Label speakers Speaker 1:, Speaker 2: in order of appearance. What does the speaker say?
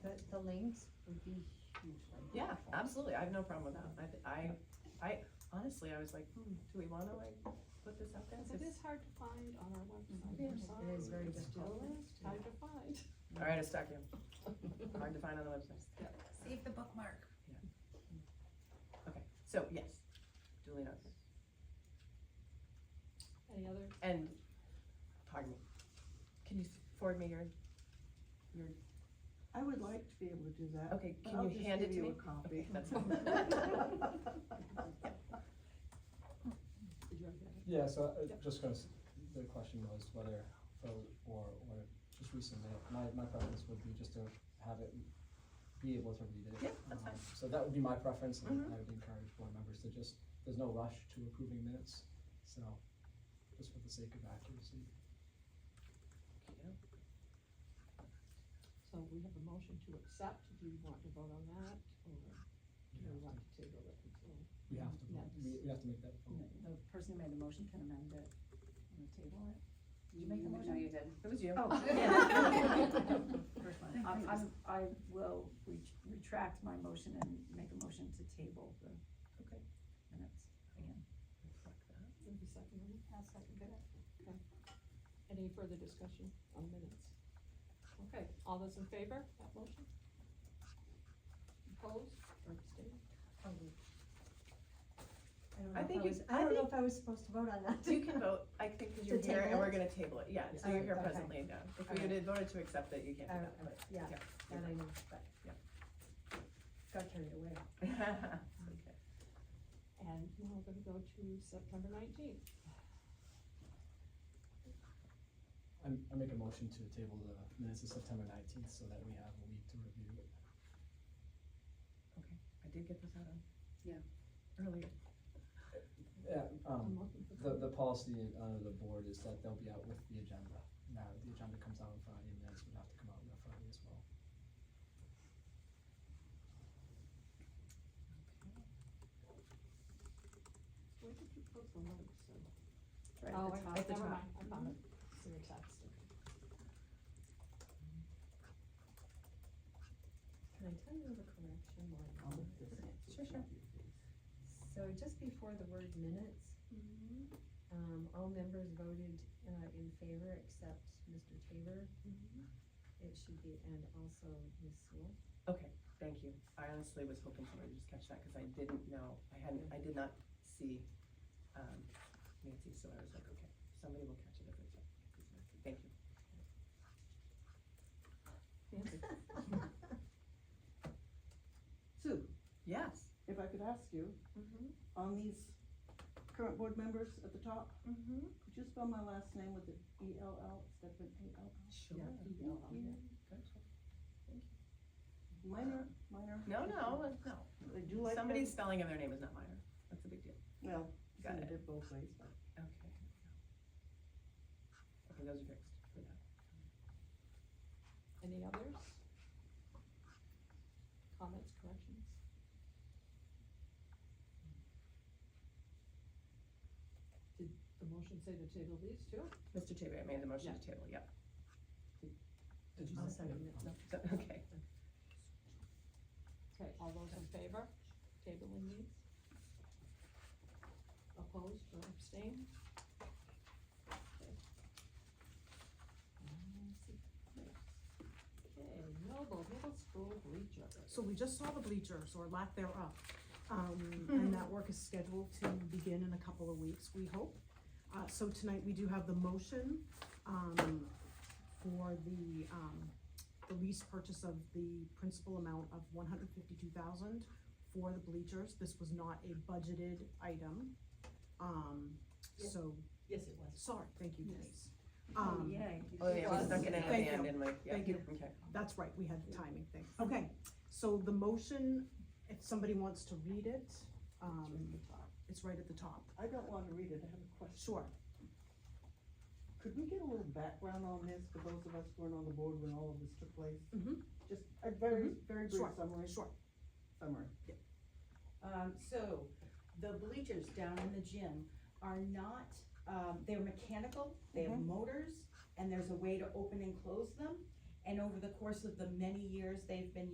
Speaker 1: links would be hugely
Speaker 2: Yeah,
Speaker 1: helpful.
Speaker 2: absolutely, I have no problem with that, I, th- I, I, honestly, I was like, hmm, do we wanna like put this out there?
Speaker 3: It is hard to find on our website,
Speaker 1: It
Speaker 3: I'm
Speaker 1: is-
Speaker 3: sorry.
Speaker 1: It is very
Speaker 2: It's
Speaker 1: difficult.
Speaker 3: It's Hard to find.
Speaker 2: Alright, I stuck you, hard to find on the website,
Speaker 4: Save the bookmark.
Speaker 2: okay, so, yes, duly noted,
Speaker 3: Any other,
Speaker 2: and, pardon me, can you forward me your, your,
Speaker 5: I would like to be able to do that.
Speaker 2: okay,
Speaker 5: but
Speaker 2: can
Speaker 5: I'll
Speaker 2: you
Speaker 5: just
Speaker 2: hand
Speaker 5: give
Speaker 2: it to
Speaker 5: you
Speaker 2: me?
Speaker 5: a copy.
Speaker 2: Okay, that's
Speaker 3: did you already have it?
Speaker 6: Yeah, so uh,
Speaker 3: Yep.
Speaker 6: just because the question was whether vote or, or just resubmit, my, my preference would be just to have it, be able to read it.
Speaker 2: Yeah, that's fine.
Speaker 6: Um, So that would be my preference, and
Speaker 2: Mhm.
Speaker 6: I would encourage board members to just, there's no rush to approving minutes, so just for the sake of accuracy.
Speaker 3: So we have a motion to accept, do you want to vote on that, or do you want to table it until?
Speaker 6: We have to, vote. we, we have to make that vote.
Speaker 1: The the person who made the motion can amend it, and table it. Did you make the
Speaker 4: No,
Speaker 1: motion?
Speaker 4: you did.
Speaker 2: It was you.
Speaker 1: Oh, yeah. First one. I'm, I'm, I will re- retract my motion and make a motion to table the
Speaker 2: Okay.
Speaker 1: minutes again.
Speaker 3: Maybe second one?
Speaker 1: I'll second that.
Speaker 3: Any further discussion on minutes? Okay, all those in favor, of that motion? Opposed or abstained?
Speaker 2: I think you, I
Speaker 7: I don't know
Speaker 2: think
Speaker 7: if I was supposed to vote on that.
Speaker 2: you can vote, I think, cause you're
Speaker 7: To
Speaker 2: here and
Speaker 7: table
Speaker 2: we're
Speaker 7: it?
Speaker 2: gonna table it, yeah, so
Speaker 7: Yeah.
Speaker 2: you're here
Speaker 7: Okay.
Speaker 2: presently and done. If we
Speaker 7: Alright.
Speaker 2: had voted to accept it, you can't
Speaker 7: I
Speaker 2: do
Speaker 7: don't-
Speaker 2: that, but.
Speaker 7: I don't- Yeah,
Speaker 2: yeah,
Speaker 7: that I know, but.
Speaker 2: Yeah.
Speaker 7: Got carried away.
Speaker 2: Okay.
Speaker 3: And now we're gonna go to September nineteenth.
Speaker 6: I, I make a motion to table the minutes of September nineteenth, so that we have a week to review it.
Speaker 2: Okay, I did get this out on.
Speaker 1: Yeah.
Speaker 2: Earlier.
Speaker 6: Yeah, um, The, the policy under the board is that they'll be out with the agenda. Now, the agenda comes out on Friday, and minutes would have to come out on Friday as well.
Speaker 3: Where did you put the link, so?
Speaker 1: Right
Speaker 3: Oh,
Speaker 1: at the
Speaker 3: I-
Speaker 1: top.
Speaker 2: at the
Speaker 3: Never
Speaker 2: top.
Speaker 3: mind, I found it, it's in your text.
Speaker 7: Can I tell you of a correction while I'm on this?
Speaker 2: Sure, sure.
Speaker 7: So just before the word minutes, um, all members voted, uh, in favor except Mr. Tabor. It should be, and also Ms. Sewell.
Speaker 2: Okay, thank you. I honestly was hoping somebody would just catch that, cause I didn't know, I hadn't, I did not see, um, Nancy, so I was like, okay, somebody will catch it if it's, if it's Nancy. Thank you.
Speaker 3: Nancy?
Speaker 5: Sue,
Speaker 2: Yes.
Speaker 5: if I could ask you,
Speaker 2: Mm-hmm.
Speaker 5: on these current board members at the top,
Speaker 2: Mm-hmm.
Speaker 5: could you spell my last name with an E L L instead of an A L L?
Speaker 2: Sure.
Speaker 3: Yeah,
Speaker 5: E-L-L, yeah. Minor, minor.
Speaker 2: No, no, no.
Speaker 5: I do like that.
Speaker 2: Somebody's spelling of their name is not minor. That's a big deal.
Speaker 5: Well, it's
Speaker 2: Got
Speaker 5: gonna
Speaker 2: it.
Speaker 5: do both ways, but.
Speaker 2: Okay. Okay, those are fixed for now.
Speaker 3: Any others? Comments, corrections? Did the motion say to table these two?
Speaker 2: Mr. Tabor, I made the motion to table, yep.
Speaker 6: Did you
Speaker 7: I'll
Speaker 6: say-
Speaker 7: second it.
Speaker 2: No, so- Okay.
Speaker 3: Okay, all those in favor, tabling these? Opposed or abstained? Okay, Um, let's see. Okay, Noble Middle School bleacher.
Speaker 8: So we just saw the bleachers or lack thereof. Um, and that work is scheduled to begin in a couple of weeks, we hope. Uh, so tonight we do have the motion, um, for the, um, the lease purchase of the principal amount of one hundred fifty-two thousand for the bleachers. This was not a budgeted item. Um, so,
Speaker 7: Yes, it was.
Speaker 8: sorry, thank you,
Speaker 3: Yes.
Speaker 8: Denise.
Speaker 1: Oh,
Speaker 8: Um,
Speaker 1: yay.
Speaker 2: Oh, yeah, we stuck it in at the
Speaker 8: Thank
Speaker 2: end
Speaker 8: you.
Speaker 2: and like, yeah.
Speaker 8: Thank you.
Speaker 2: Okay.
Speaker 8: That's right, we had the timing thing. Okay, so the motion, if somebody wants to read it, um, it's right at the top.
Speaker 5: I don't wanna read it, I have a question.
Speaker 8: Sure.
Speaker 5: Could we get a little background on this for those of us who weren't on the board when all of this took place?
Speaker 8: Mhm.
Speaker 5: Just a very, very brief
Speaker 8: Mm-hmm. Sure,
Speaker 5: summary,
Speaker 8: Sure.
Speaker 5: summary.
Speaker 9: Um, so, the bleachers down in the gym are not, um, they're mechanical, they have motors, and there's a way to open and close them. And over the course of the many years they've been